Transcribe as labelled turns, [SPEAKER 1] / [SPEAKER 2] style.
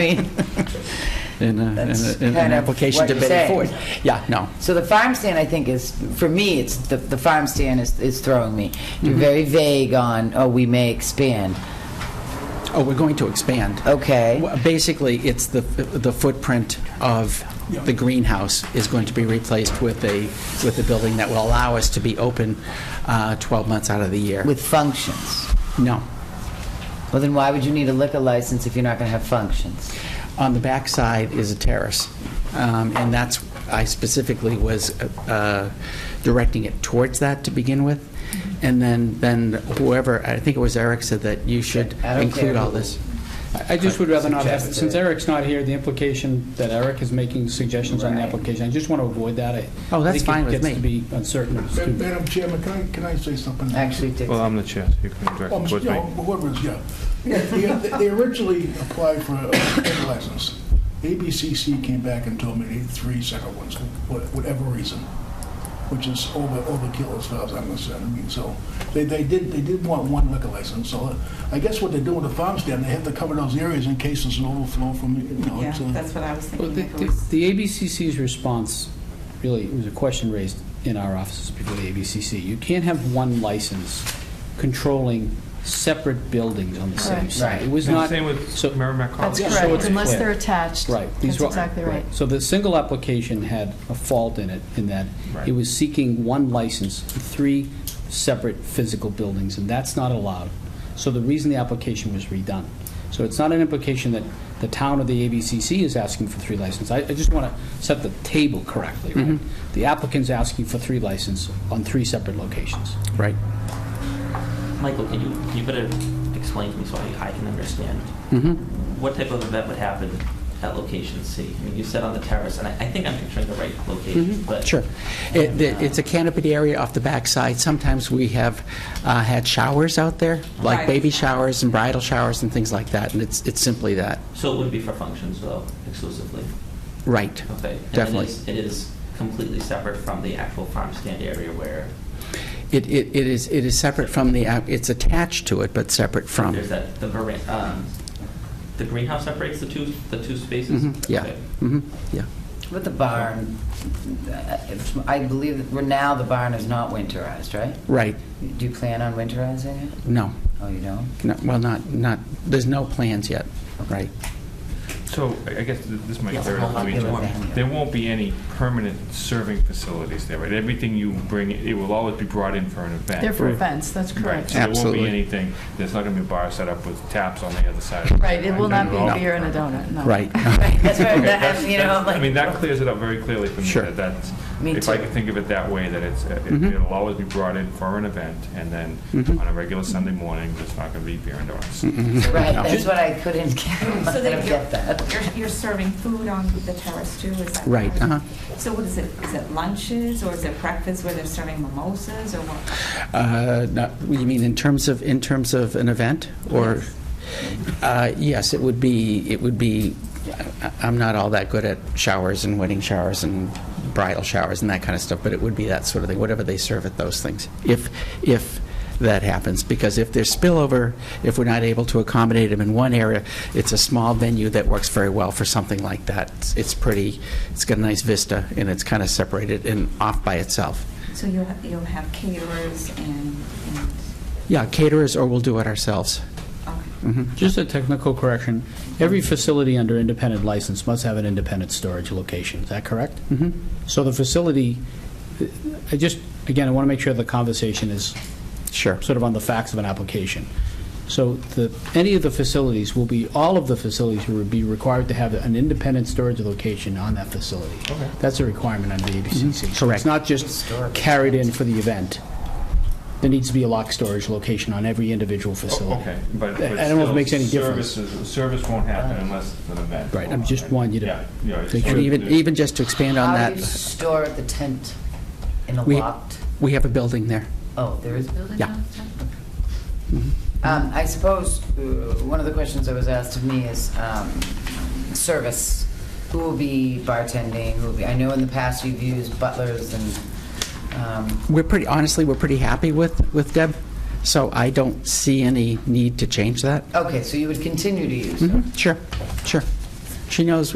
[SPEAKER 1] mean,
[SPEAKER 2] in a- in a-
[SPEAKER 1] That's
[SPEAKER 2] in an
[SPEAKER 1] kind of
[SPEAKER 2] application
[SPEAKER 1] what
[SPEAKER 2] to
[SPEAKER 1] you're
[SPEAKER 2] Betty
[SPEAKER 1] saying.
[SPEAKER 2] Ford. Yeah, no.
[SPEAKER 1] So the farm stand, I think, is, for me, it's, the, the farm stand is, is throwing me. You're very vague on, oh, we may expand.
[SPEAKER 2] Oh, we're going to expand.
[SPEAKER 1] Okay.
[SPEAKER 2] Well, Basically, it's the, the footprint of the greenhouse is going to be replaced with a, with a building that will allow us to be open uh, 12 months out of the year.
[SPEAKER 1] With functions.
[SPEAKER 2] No.
[SPEAKER 1] Well, then why would you need a liquor license if you're not going to have functions?
[SPEAKER 2] On the back side is a terrace, Um, and that's, I specifically was uh, directing it towards that to begin with, and then, then whoever, I think it was Eric said that you should
[SPEAKER 1] I don't
[SPEAKER 2] include
[SPEAKER 1] care
[SPEAKER 2] all
[SPEAKER 1] who-
[SPEAKER 2] this.
[SPEAKER 3] I just would rather not have,
[SPEAKER 1] Suggest
[SPEAKER 3] since
[SPEAKER 1] it.
[SPEAKER 3] Eric's not here, the implication that Eric is making suggestions on the
[SPEAKER 1] Right.
[SPEAKER 3] application, I just want to avoid that. I-
[SPEAKER 2] Oh, that's
[SPEAKER 3] I think it
[SPEAKER 2] fine with
[SPEAKER 3] gets
[SPEAKER 2] me.
[SPEAKER 3] to be uncertain. as
[SPEAKER 4] Ma-
[SPEAKER 3] to-
[SPEAKER 4] Madam Chairman, can I, can I say something?
[SPEAKER 1] Actually, Dick.
[SPEAKER 5] Well, I'm the chair, so you can direct
[SPEAKER 4] Um,
[SPEAKER 5] it towards
[SPEAKER 4] you
[SPEAKER 5] me.
[SPEAKER 4] know, whoever it is, yeah. Yeah, They they originally applied for uh, a liquor license. ABCC came back and told me they need three separate ones, wh- whatever reason, which is over overkill as far as I'm concerned. I mean, so they, they did, they did want one liquor license. So uh, I guess what they do with the farm stand, they have to cover those areas in case there's an overflow from, you know.
[SPEAKER 6] Yeah,
[SPEAKER 4] it's, uh,
[SPEAKER 6] that's what I was
[SPEAKER 3] Well,
[SPEAKER 6] thinking.
[SPEAKER 3] The
[SPEAKER 6] if it
[SPEAKER 3] the-
[SPEAKER 6] was-
[SPEAKER 3] the ABCC's response, really, it was a question raised in our offices before the ABCC. You can't have one license controlling separate buildings on the same
[SPEAKER 6] Correct.
[SPEAKER 3] site. It was
[SPEAKER 5] And
[SPEAKER 3] not.
[SPEAKER 5] Same with
[SPEAKER 3] so-
[SPEAKER 5] Merrimack College.
[SPEAKER 6] That's
[SPEAKER 3] Yeah, so
[SPEAKER 6] correct,
[SPEAKER 3] it's
[SPEAKER 6] unless
[SPEAKER 3] clear.
[SPEAKER 6] they're attached.
[SPEAKER 3] Right.
[SPEAKER 6] That's
[SPEAKER 3] These were-
[SPEAKER 6] exactly right.
[SPEAKER 3] So the single application had a fault in it, in that it
[SPEAKER 5] Right.
[SPEAKER 3] was seeking one license for three separate physical buildings, and that's not allowed. So the reason the application was redone. So it's not an implication that the town or the ABCC is asking for three licenses. I I just want to set the table correctly, right? The applicant's asking for three licenses on three separate locations.
[SPEAKER 2] Right.
[SPEAKER 7] Michael, can you, you better explain to me so I, I can understand.
[SPEAKER 2] Mhm.
[SPEAKER 7] What type of event would happen at location C? I mean, you said on the terrace, and I, I think I'm picturing the right location, but.
[SPEAKER 2] Mm-hmm. Sure. It- the- It's a canopied area off the backside. Sometimes we have uh, had showers out there, like
[SPEAKER 6] Right.
[SPEAKER 2] baby showers and bridal showers and things like that, and it's, it's simply that.
[SPEAKER 7] So it wouldn't be for functions though, exclusively?
[SPEAKER 2] Right.
[SPEAKER 7] Okay. And it
[SPEAKER 2] Definitely.
[SPEAKER 7] is- It is completely separate from the actual farm stand area where
[SPEAKER 2] It, it it is, it is separate from the, app. it's attached to it, but separate from.
[SPEAKER 7] there's that, the veran, um, the greenhouse separates the two, the two spaces?
[SPEAKER 2] Mhm, Yeah,
[SPEAKER 7] Okay.
[SPEAKER 2] mhm, yeah.
[SPEAKER 1] With the barn, uh, I believe that we're now the barn is not winterized, right?
[SPEAKER 2] Right,
[SPEAKER 1] Do you plan on winterizing it?
[SPEAKER 2] no,
[SPEAKER 1] Oh, you don't?
[SPEAKER 2] no, well, not, not, there's no plans yet, right?
[SPEAKER 5] So I I guess th- this might
[SPEAKER 7] Yes,
[SPEAKER 5] clarify
[SPEAKER 7] I'll
[SPEAKER 5] for me.
[SPEAKER 7] give it
[SPEAKER 5] There
[SPEAKER 7] back.
[SPEAKER 5] there won't be any permanent serving facilities there, right? Everything you bring, it will always be brought in for an event.
[SPEAKER 6] They're for
[SPEAKER 2] Right.
[SPEAKER 6] events, that's
[SPEAKER 5] Right,
[SPEAKER 6] correct.
[SPEAKER 5] so there won't
[SPEAKER 2] Absolutely.
[SPEAKER 5] be anything, there's not going to be a bar set up with taps on the other side.
[SPEAKER 6] Right, it will not be
[SPEAKER 5] No.
[SPEAKER 6] a beer and a donut, no.
[SPEAKER 2] Right.
[SPEAKER 1] That's where,
[SPEAKER 5] Okay,
[SPEAKER 1] that-
[SPEAKER 5] that's-
[SPEAKER 1] you know,
[SPEAKER 5] that's- I mean,
[SPEAKER 1] like,
[SPEAKER 5] that clears it up very clearly for me.
[SPEAKER 2] Sure.
[SPEAKER 5] that That's,
[SPEAKER 1] Me
[SPEAKER 5] if I
[SPEAKER 1] too.
[SPEAKER 5] can think of it that way, that it's, it-
[SPEAKER 2] Mhm.
[SPEAKER 5] it'll always be brought in for an event, and then
[SPEAKER 2] Mhm.
[SPEAKER 5] on a regular Sunday morning, there's not going to be beer and donuts.
[SPEAKER 2] Mm-hmm.
[SPEAKER 1] right,
[SPEAKER 2] No.
[SPEAKER 1] that's what I couldn't get, I
[SPEAKER 8] So
[SPEAKER 1] don't
[SPEAKER 8] that
[SPEAKER 1] get that.
[SPEAKER 8] you're, you're, you're serving food on the terrace too, is that?
[SPEAKER 2] Right,
[SPEAKER 8] correct?
[SPEAKER 2] uh-huh.
[SPEAKER 8] So what is it, is it lunches or is it breakfast where they're serving mimosas or what?
[SPEAKER 2] Uh, not- You mean in terms of, in terms of an event, or? Uh, Yes, it would be, it would be, I- I'm not all that good at showers and wedding showers and bridal showers and that kind of stuff, but it would be that sort of thing, whatever they serve at those things, if, if that happens. Because if there's spillover, if we're not able to accommodate them in one area, it's a small venue that works very well for something like that. It's- It's pretty, it's got a nice vista, and it's kind of separated and off by itself.
[SPEAKER 8] So you'll, ha- you'll have caterers and, and,
[SPEAKER 2] Yeah, caterers, or we'll do it ourselves.
[SPEAKER 8] okay.
[SPEAKER 2] Mhm.
[SPEAKER 3] Just a technical correction. Every facility under independent license must have an independent storage location. Is that correct?
[SPEAKER 2] Mhm.
[SPEAKER 3] So the facility, I just, again, I want to make sure the conversation is
[SPEAKER 2] Sure.
[SPEAKER 3] sort of on the facts of an application. So the, any of the facilities will be, all of the facilities will be required to have an independent storage location on that facility.
[SPEAKER 5] Okay.
[SPEAKER 3] That's a requirement under the ABCC. So
[SPEAKER 2] Correct.
[SPEAKER 3] It's not just carried in for the event. There needs to be a lock storage location on every individual
[SPEAKER 5] Oh,
[SPEAKER 3] facility.
[SPEAKER 5] Okay, but.
[SPEAKER 3] I
[SPEAKER 5] but
[SPEAKER 3] don't know if it
[SPEAKER 5] still,
[SPEAKER 3] makes any difference.
[SPEAKER 5] services- Service won't happen unless it's an event.
[SPEAKER 3] Right, I'm just wanting you to
[SPEAKER 5] Yeah, yeah, it's-
[SPEAKER 3] make sure
[SPEAKER 2] And even, even just to expand on
[SPEAKER 1] How do you
[SPEAKER 2] that,
[SPEAKER 1] store the tent in a
[SPEAKER 2] We-
[SPEAKER 1] locked?
[SPEAKER 2] we have a building there.
[SPEAKER 1] Oh, there is building
[SPEAKER 2] Yeah.
[SPEAKER 1] Um, I suppose, uh, one of the questions that was asked of me is um, service. Who will be bartending? Who will be, I know in the past you've used butlers and, um,
[SPEAKER 2] We're pretty, honestly, we're pretty happy with, with Deb, so I don't see any need to change that.
[SPEAKER 1] okay, so you would continue to use
[SPEAKER 2] Mhm,
[SPEAKER 1] them.
[SPEAKER 2] Sure, sure. She knows